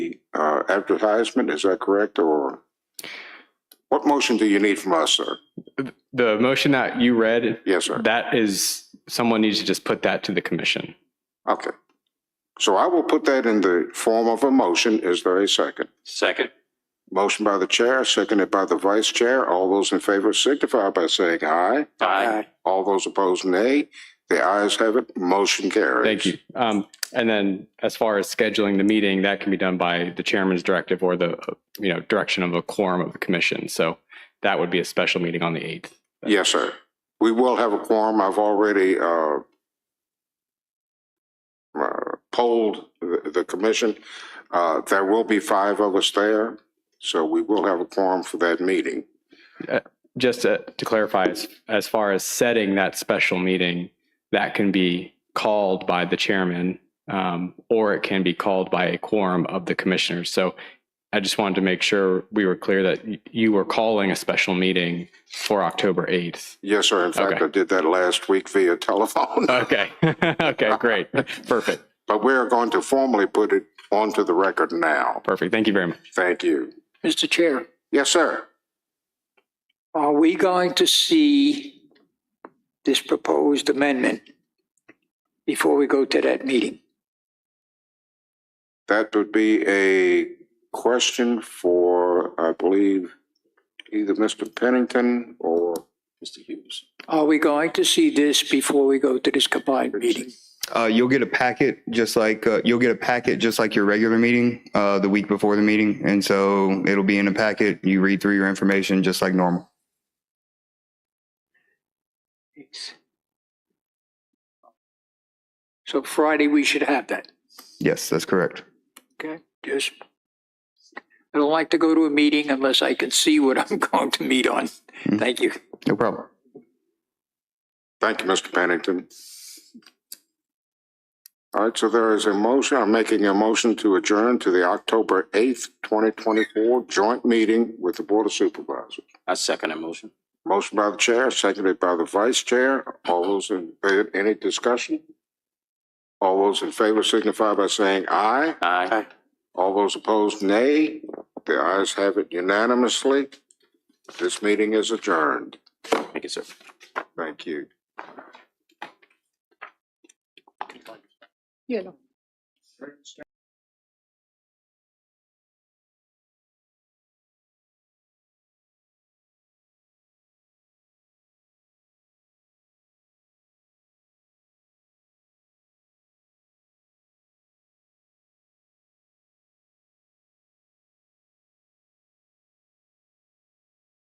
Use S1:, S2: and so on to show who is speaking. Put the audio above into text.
S1: uh, advertisement, is that correct, or? What motion do you need from us, sir?
S2: The motion that you read,
S1: Yes, sir.
S2: that is, someone needs to just put that to the commission.
S1: Okay. So I will put that in the form of a motion. Is there a second?
S3: Second.
S1: Motion by the chair, seconded by the vice chair. All those in favor signify by saying aye.
S3: Aye.
S1: All those opposed, nay. The ayes have it. Motion carries.
S2: Thank you. Um, and then as far as scheduling the meeting, that can be done by the chairman's directive or the, uh, you know, direction of a quorum of the commission. So that would be a special meeting on the 8th.
S1: Yes, sir. We will have a quorum. I've already uh, uh, polled the the commission. Uh, There will be five of us there, so we will have a quorum for that meeting.
S2: Just to to clarify, as, as far as setting that special meeting, that can be called by the chairman um, or it can be called by a quorum of the commissioners. So I just wanted to make sure we were clear that y- you were calling a special meeting for October 8th.
S1: Yes, sir. In fact,
S2: Okay. Uh.
S1: I did that last week via telephone.
S2: Okay. okay, great. Perfect.
S1: But we are going to formally put it onto the record now.
S2: Perfect. Thank you very much.
S1: Thank you.
S4: Mr. Chair,
S1: Yes, sir.
S4: are we going to see this proposed amendment before we go to that meeting?
S1: That would be a question for, I believe, either Mr. Pennington or Mr. Hughes.
S4: Are we going to see this before we go to this combined meeting?
S5: Uh, you'll get a packet just like uh, you'll get a packet just like your regular meeting uh, the week before the meeting, and so it'll be in a packet. You read through your information just like normal.
S4: So Friday, we should have that,
S5: Yes, that's correct.
S4: okay? Just, I don't like to go to a meeting unless I can see what I'm going to meet on. Thank you.
S5: No problem.
S1: Thank you, Mr. Pennington. All right, so there is a motion, I'm making a motion to adjourn to the October 8th, 2024 joint meeting with the Board of Supervisors.
S3: I second that motion.
S1: Motion by the chair, seconded by the vice chair. All those in, favor? any discussion? All those in favor signify by saying aye.
S3: Aye.
S1: All those opposed, nay. The ayes have it unanimously. This meeting is adjourned.
S3: Thank you, sir.
S1: Thank you.
S4: You know.